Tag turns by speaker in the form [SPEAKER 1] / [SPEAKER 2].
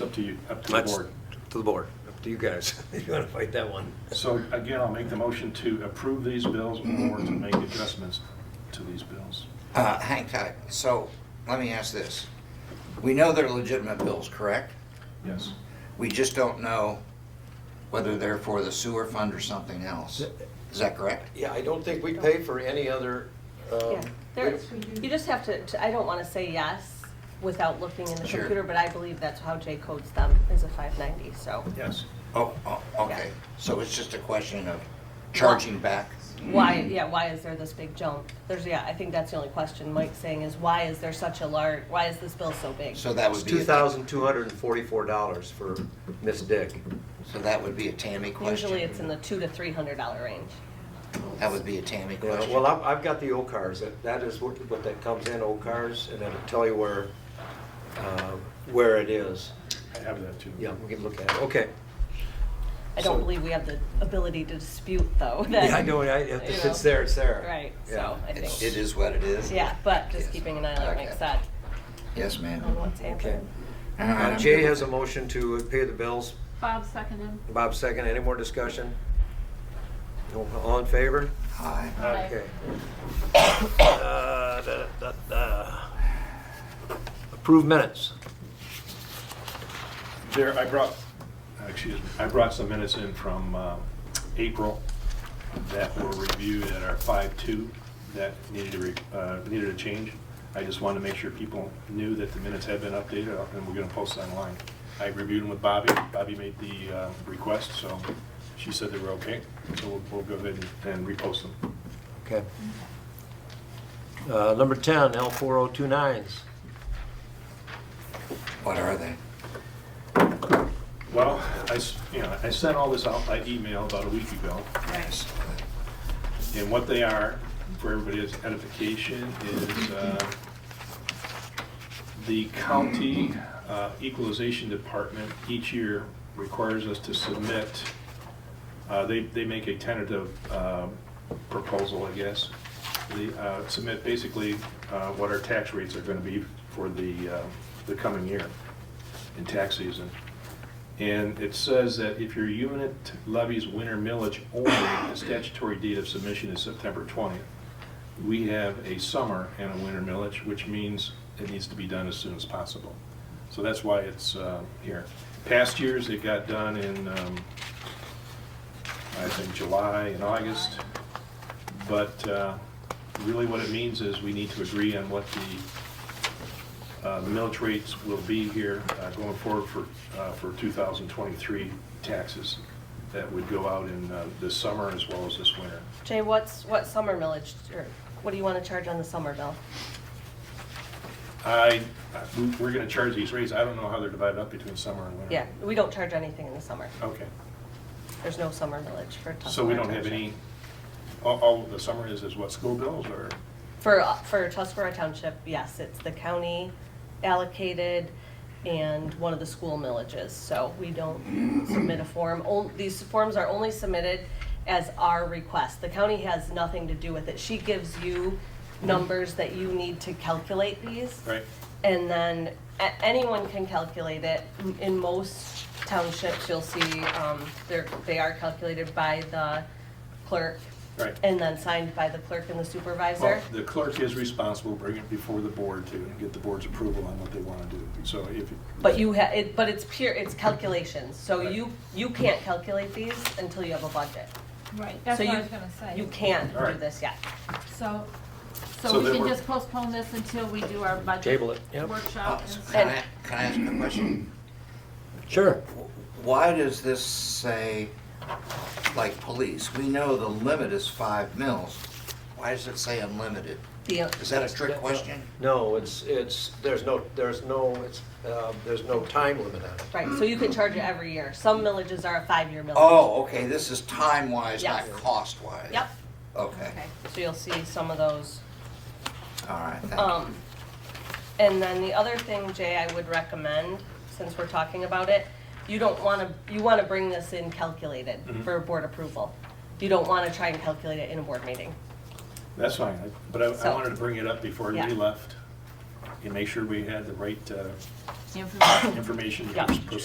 [SPEAKER 1] up to you, up to the
[SPEAKER 2] That's
[SPEAKER 1] board.
[SPEAKER 2] to the board, up to you guys, if you want to fight that one.
[SPEAKER 1] So again, I'll make the motion to approve these bills or to make adjustments to these bills.
[SPEAKER 3] Uh, hang tight. So, let me ask this. We know they're legitimate bills, correct?
[SPEAKER 1] Yes.
[SPEAKER 3] We just don't know whether they're for the sewer fund or something else. Is that correct?
[SPEAKER 2] Yeah, I don't think we pay for any other, um,
[SPEAKER 4] Yeah, there, you just have to, to- I don't want to say yes without looking in the
[SPEAKER 3] Sure.
[SPEAKER 4] computer, but I believe that's how Jay codes them, is a 590, so.
[SPEAKER 1] Yes.
[SPEAKER 3] Oh, oh, okay. So it's just a question of charging back?
[SPEAKER 4] Why, yeah, why is there this big jump? There's, yeah, I think that's the only question Mike's saying is why is there such a large, why is this bill so big?
[SPEAKER 3] So that
[SPEAKER 2] it's
[SPEAKER 3] would be,
[SPEAKER 2] two
[SPEAKER 3] a-
[SPEAKER 2] thousand two hundred and forty-four dollars for Miss Dick.
[SPEAKER 3] so that would be a Tammy question?
[SPEAKER 4] Usually it's in the two to three hundred dollar range.
[SPEAKER 3] That would be a Tammy
[SPEAKER 2] You know,
[SPEAKER 3] question?
[SPEAKER 2] well, I've, I've got the old cars, that, that is what, what that comes in, old cars, and that'll tell you where, uh, where it is.
[SPEAKER 1] I have that too.
[SPEAKER 2] Yeah, we can look at it, okay.
[SPEAKER 4] I
[SPEAKER 2] So-
[SPEAKER 4] don't believe we have the ability to dispute though. that-
[SPEAKER 2] Yeah, I know, I- if
[SPEAKER 4] you know.
[SPEAKER 2] it's there, it's there.
[SPEAKER 4] Right,
[SPEAKER 2] Yeah.
[SPEAKER 4] so I
[SPEAKER 3] It's-
[SPEAKER 4] think,
[SPEAKER 3] It is what it is?
[SPEAKER 4] yeah, but just
[SPEAKER 3] Yes.
[SPEAKER 4] keeping an eye on what
[SPEAKER 3] Okay.
[SPEAKER 4] Mike said,
[SPEAKER 3] Yes, ma'am.
[SPEAKER 4] on what's
[SPEAKER 2] Okay.
[SPEAKER 4] happening.
[SPEAKER 3] All right,
[SPEAKER 2] Uh,
[SPEAKER 3] I'm
[SPEAKER 2] Jay
[SPEAKER 3] good.
[SPEAKER 2] has a motion to pay the bills,
[SPEAKER 5] Bob seconded.
[SPEAKER 2] Bob second, any more discussion? No, All in favor?
[SPEAKER 3] Aye.
[SPEAKER 2] Okay. Uh, da, da, da. Approve minutes.
[SPEAKER 1] There, I brought, excuse me, I brought some minutes in from uh, April that were reviewed at our 5-2 that needed to, re- uh, needed a change. I just wanted to make sure people knew that the minutes had been updated uh, and we're going to post online. I reviewed them with Bobby. Bobby made the uh, request, so she said they were okay. So we'll- we'll go ahead and and repost them.
[SPEAKER 2] Okay. Uh, Number 10, L4029s.
[SPEAKER 3] What are they?
[SPEAKER 1] Well, I, s- you know, I sent all this out by email about a week ago.
[SPEAKER 3] Yes.
[SPEAKER 1] And what they are, for everybody's edification, is uh, the county uh, equalization department each year requires us to submit, uh, they, they make a tentative um, proposal, I guess. They uh, submit basically uh, what our tax rates are going to be for the, uh, the coming year in tax season. And it says that if your unit levies winter millage only, the statutory date of submission is September 20th. We have a summer and a winter millage, which means it needs to be done as soon as possible. So that's why it's uh, here. Past years, it got done in, um, I think, July and August. But uh, really what it means is we need to agree on what the uh, The millage rates will be here uh, going forward for, uh, for 2023 taxes that would go out in uh, this summer as well as this winter.
[SPEAKER 4] Jay, what's, what summer millage, or what do you want to charge on the summer bill?
[SPEAKER 1] I, I- we- we're going to charge these rates. I don't know how they're divided up between summer and winter.
[SPEAKER 4] Yeah, we don't charge anything in the summer.
[SPEAKER 1] Okay.
[SPEAKER 4] There's no summer millage for Tuscaloosa.
[SPEAKER 1] So we don't have
[SPEAKER 4] Township.
[SPEAKER 1] any, all, all the summer is, is what, school bills or?
[SPEAKER 4] For, for Tuscarora Township, yes, it's the county allocated and one of the school millages, so we don't submit a form. Ol- These forms are only submitted as our request. The county has nothing to do with it. She gives you numbers that you need to calculate these.
[SPEAKER 1] Right.
[SPEAKER 4] And then a- anyone can calculate it. M- In most townships, you'll see, um, they're, they are calculated by the clerk.
[SPEAKER 1] Right.
[SPEAKER 4] And then signed by the clerk and the supervisor.
[SPEAKER 1] Well, the clerk is responsible, bring it before the board to get the board's approval on what they want to do. So if,
[SPEAKER 4] But you ha, it, but it's pure, it's calculations, so
[SPEAKER 1] Right.
[SPEAKER 4] you, you can't calculate these until you have a budget.
[SPEAKER 5] Right, that's
[SPEAKER 4] So
[SPEAKER 5] what I
[SPEAKER 4] you-
[SPEAKER 5] was gonna
[SPEAKER 4] You
[SPEAKER 5] say.
[SPEAKER 4] can't do
[SPEAKER 1] Alright.
[SPEAKER 4] this yet.
[SPEAKER 5] So,
[SPEAKER 1] So
[SPEAKER 5] so we
[SPEAKER 1] then
[SPEAKER 5] can
[SPEAKER 1] we're-
[SPEAKER 5] just postpone this until we do our budget
[SPEAKER 2] Table it.
[SPEAKER 4] Um,
[SPEAKER 5] workshop. and-
[SPEAKER 3] Uh, Can I, can I ask a question?
[SPEAKER 2] Sure.
[SPEAKER 3] Why does this say, like police, we know the limit is five mils. Why does it say unlimited?
[SPEAKER 4] The,
[SPEAKER 3] Is that a trick question?
[SPEAKER 2] No, it's, it's, there's no, there's no, it's, uh, there's no time limit on it.
[SPEAKER 4] right, so you can charge it every year. Some millages are a five-year millage.
[SPEAKER 3] Oh, okay, this is time-wise, not
[SPEAKER 4] Yes.
[SPEAKER 3] cost-wise.
[SPEAKER 4] Yep,
[SPEAKER 3] Okay,
[SPEAKER 4] so you'll see some of those.
[SPEAKER 3] all right, thank you.
[SPEAKER 4] Um, and then the other thing, Jay, I would recommend, since we're talking about it, you don't wanna, you wanna bring this in calculated for board approval. You don't wanna try and calculate it in a board meeting.
[SPEAKER 1] That's fine, I- but I, I
[SPEAKER 4] So-
[SPEAKER 1] wanted to bring it up before
[SPEAKER 4] Yeah.
[SPEAKER 1] we left and make sure we had the right uh,
[SPEAKER 5] Information.
[SPEAKER 1] information to
[SPEAKER 4] Yeah.
[SPEAKER 1] pros- proceed